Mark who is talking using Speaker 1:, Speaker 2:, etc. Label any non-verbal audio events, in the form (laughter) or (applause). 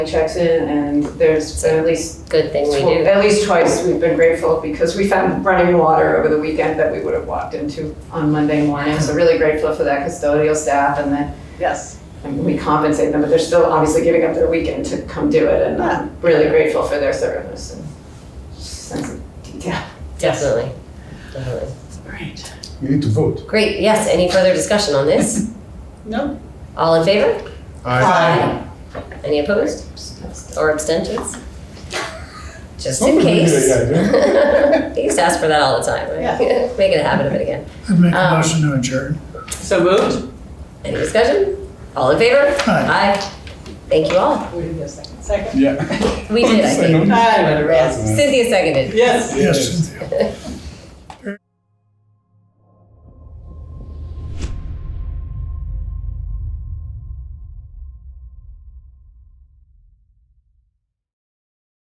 Speaker 1: checks in and there's been at least,
Speaker 2: Good thing we
Speaker 1: tw-
Speaker 2: do.
Speaker 1: at least twice we've been grateful because we found running water over the weekend that we would have walked into on Monday morning. So really grateful for that custodial staff and then
Speaker 3: Yes.
Speaker 1: and we compensate them, but they're still obviously giving up their weekend to come do it and I'm really grateful for their service and sense of detail.
Speaker 2: Definitely. Definitely.
Speaker 3: All right.
Speaker 4: We need to vote.
Speaker 2: Great. Yes. Any further discussion on this?
Speaker 3: No?
Speaker 2: All in favor?
Speaker 4: Aye.
Speaker 2: Any opposed or abstentions? Just in
Speaker 4: Somebody did
Speaker 2: case. (laughs)
Speaker 4: it,
Speaker 2: You used to ask for that all the time, right? (laughs) Make it a habit of it again.
Speaker 5: I'd make a
Speaker 2: Um,
Speaker 5: motion to adjourn.
Speaker 3: So moved?
Speaker 2: Any discussion? All in favor?
Speaker 5: Aye.
Speaker 2: Thank you all.
Speaker 3: We didn't get a second. Second?
Speaker 2: (laughs)
Speaker 4: Yeah.
Speaker 2: We did, I think.
Speaker 3: Aye, but a rest.
Speaker 4: (laughs)
Speaker 2: Cynthia seconded.
Speaker 3: Yes.
Speaker 5: Yes, Cynthia.